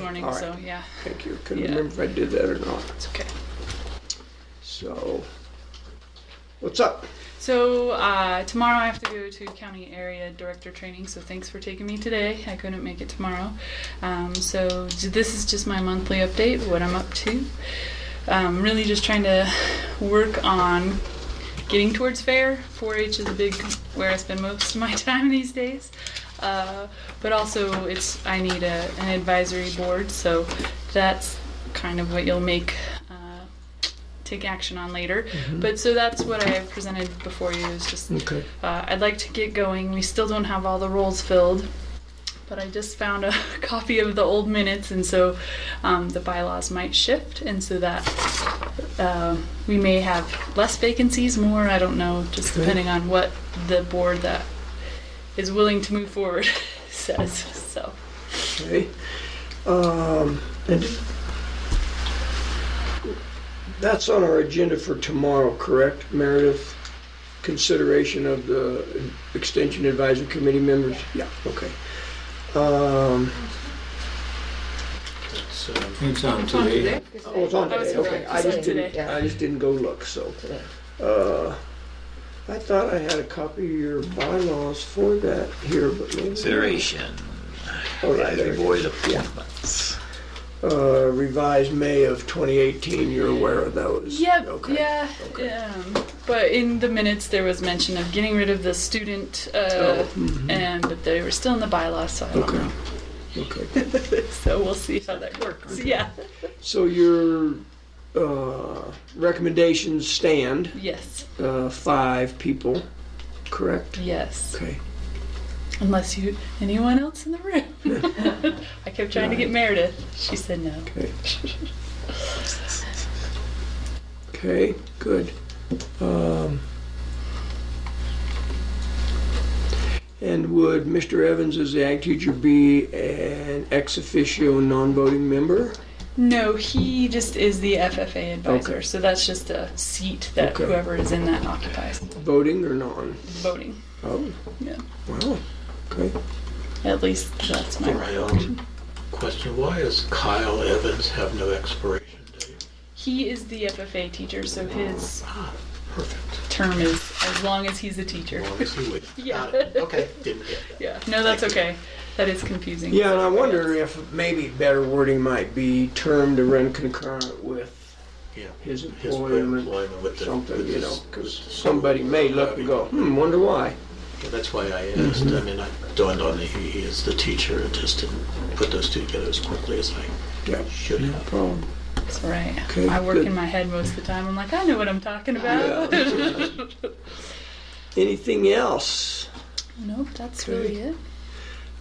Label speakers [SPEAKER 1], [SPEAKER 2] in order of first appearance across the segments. [SPEAKER 1] morning,
[SPEAKER 2] all right.
[SPEAKER 1] so yeah,
[SPEAKER 2] Thank you. Couldn't
[SPEAKER 1] Yeah.
[SPEAKER 2] remember if I did that or not.
[SPEAKER 1] it's okay.
[SPEAKER 2] So, what's up?
[SPEAKER 1] So uh, tomorrow I have to go to county area director training. So thanks for taking me today. I couldn't make it tomorrow. Um, so j- this is just my monthly update, what I'm up to. Um, really just trying to work on getting towards fair. 4-H is a big where I spend most of my time these days. Uh, but also it's I need a, an advisory board, so that's kind of what you'll make. Uh, take action on later. But so that's what I presented before you. Is just
[SPEAKER 2] Okay.
[SPEAKER 1] uh, I'd like to get going. We still don't have all the roles filled, but I just found a copy of the old minutes, and so um, the bylaws might shift, and so that uh, we may have less vacancies, more. I don't know, just
[SPEAKER 2] Okay.
[SPEAKER 1] depending on what the board that is willing to move forward says. So.
[SPEAKER 2] Okay. Um, and that's on our agenda for tomorrow, correct, Meredith? Consideration of the Extension Advisory Committee members? Yeah, okay. Um,
[SPEAKER 3] So it's on today.
[SPEAKER 2] oh, it's on
[SPEAKER 1] Oh, it's
[SPEAKER 2] today, okay.
[SPEAKER 1] today.
[SPEAKER 2] I just didn't,
[SPEAKER 1] Today.
[SPEAKER 2] I just didn't go look, so. Uh, I thought I had a copy of your bylaws for that here, but maybe.
[SPEAKER 3] Consideration,
[SPEAKER 2] Oh, yeah,
[SPEAKER 3] advisory
[SPEAKER 2] there it is.
[SPEAKER 3] board appointments.
[SPEAKER 2] Uh, revised May of 2018, you're aware of those?
[SPEAKER 1] Yeah,
[SPEAKER 2] Okay.
[SPEAKER 1] yeah. Um, but in the minutes, there was mention of getting rid of the student, uh,
[SPEAKER 2] Oh, mhm.
[SPEAKER 1] and but they were still in the bylaws, so I don't
[SPEAKER 2] Okay, okay.
[SPEAKER 1] know. so we'll see how that works. Yeah.
[SPEAKER 2] So your uh, recommendations stand,
[SPEAKER 1] Yes.
[SPEAKER 2] uh, five people, correct?
[SPEAKER 1] Yes.
[SPEAKER 2] Okay.
[SPEAKER 1] Unless you anyone else in the room. I kept trying to get Meredith. She said no.
[SPEAKER 2] Okay. Okay, good. Um, And would Mr. Evans as the ag teacher be an ex officio non-voting member?
[SPEAKER 1] No, he just is the FFA advisor.
[SPEAKER 2] Okay.
[SPEAKER 1] So that's just a seat that
[SPEAKER 2] Okay.
[SPEAKER 1] whoever is in that occupies.
[SPEAKER 2] Voting or non?
[SPEAKER 1] Voting.
[SPEAKER 2] Oh,
[SPEAKER 1] Yeah.
[SPEAKER 2] wow, okay.
[SPEAKER 1] At least that's my
[SPEAKER 4] My own um, question, why does Kyle Evans have no expiration date?
[SPEAKER 1] He is the FFA teacher, so his
[SPEAKER 4] Ah, perfect.
[SPEAKER 1] term is as long as he's a teacher.
[SPEAKER 4] As long as he waits.
[SPEAKER 1] Yeah.
[SPEAKER 4] Got it. Okay, didn't get that.
[SPEAKER 1] Yeah. No, that's okay. That is confusing.
[SPEAKER 2] Yeah, and I wonder if maybe better wording might be term to run concurrent with
[SPEAKER 4] Yeah.
[SPEAKER 2] his
[SPEAKER 4] His
[SPEAKER 2] employment,
[SPEAKER 4] employment with the.
[SPEAKER 2] something,
[SPEAKER 4] with
[SPEAKER 2] you
[SPEAKER 4] the-
[SPEAKER 2] know,
[SPEAKER 4] with
[SPEAKER 2] because
[SPEAKER 4] the-
[SPEAKER 2] somebody may look and go, hmm, wonder why.
[SPEAKER 4] Yeah, That's why I asked, I mean, I dawned on me, he he is the teacher, I just didn't put those two together as quickly as I
[SPEAKER 2] Yeah,
[SPEAKER 4] should
[SPEAKER 2] no
[SPEAKER 4] have.
[SPEAKER 2] problem.
[SPEAKER 1] That's right.
[SPEAKER 2] Okay,
[SPEAKER 1] I work
[SPEAKER 2] good.
[SPEAKER 1] in my head most of the time. I'm like, I know what I'm talking about.
[SPEAKER 2] Anything else?
[SPEAKER 1] nope, that's
[SPEAKER 2] Okay.
[SPEAKER 1] really it.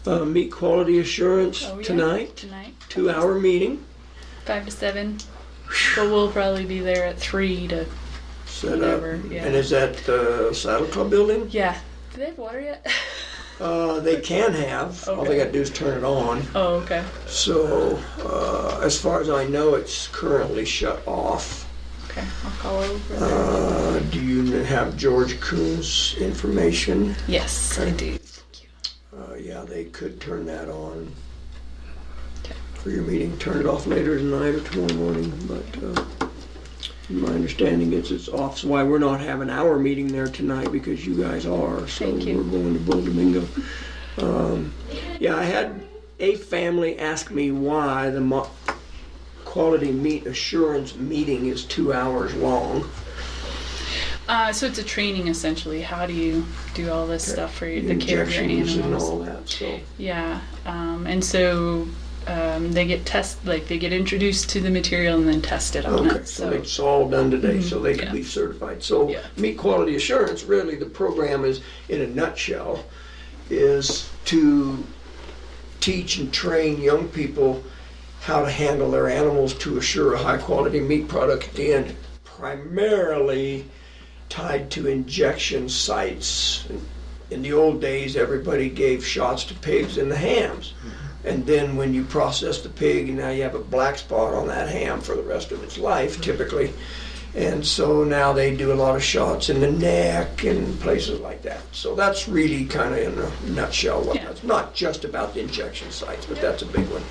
[SPEAKER 2] Uh, meet quality assurance
[SPEAKER 1] Oh, yeah.
[SPEAKER 2] tonight,
[SPEAKER 1] Tonight.
[SPEAKER 2] two-hour meeting,
[SPEAKER 1] Five to seven. But we'll probably be there at three to.
[SPEAKER 2] set up.
[SPEAKER 1] Whatever, yeah.
[SPEAKER 2] And is that the Saddle Club building?
[SPEAKER 1] Yeah. Do they have water yet?
[SPEAKER 2] Uh, they can have, all they
[SPEAKER 1] Okay.
[SPEAKER 2] gotta do is turn it on.
[SPEAKER 1] oh, okay.
[SPEAKER 2] So, uh, as far as I know, it's currently shut off.
[SPEAKER 1] Okay. I'll call over. there.
[SPEAKER 2] Uh, do you have George Coons information?
[SPEAKER 1] yes, I do.
[SPEAKER 2] Uh, yeah, they could turn that on
[SPEAKER 1] Okay.
[SPEAKER 2] for your meeting. Turn it off later tonight or tomorrow morning, but, uh, my understanding is it's off. So why we're not having our meeting there tonight because you guys are.
[SPEAKER 1] Thank
[SPEAKER 2] So
[SPEAKER 1] you.
[SPEAKER 2] we're going to Bull Domingo. Um, yeah, I had a family ask me why the mo- quality meat assurance meeting is two hours long.
[SPEAKER 1] Uh, so it's a training essentially. How do you do all this stuff for your, the care of your
[SPEAKER 2] Injections
[SPEAKER 1] animals?
[SPEAKER 2] and all that, so.
[SPEAKER 1] Yeah, um, and so um, they get test like they get introduced to the material and then tested on
[SPEAKER 2] Okay,
[SPEAKER 1] it.
[SPEAKER 2] so Mm-hmm.
[SPEAKER 1] So
[SPEAKER 2] it's all done today, so they can
[SPEAKER 1] yeah.
[SPEAKER 2] be certified. So
[SPEAKER 1] Yeah.
[SPEAKER 2] meat quality assurance, really, the program is, in a nutshell, is to teach and train young people how to handle their animals to assure a high-quality meat product at the end, primarily tied to injection sites. In the old days, everybody gave shots to pigs in the hams. And then when you process the pig, now you have a black spot on that ham for the rest of its life, typically. And so now they do a lot of shots in the neck and places like that. So that's really kind of in a nutshell what
[SPEAKER 1] Yeah.
[SPEAKER 2] that's not just about the injection sites, but that's a big one.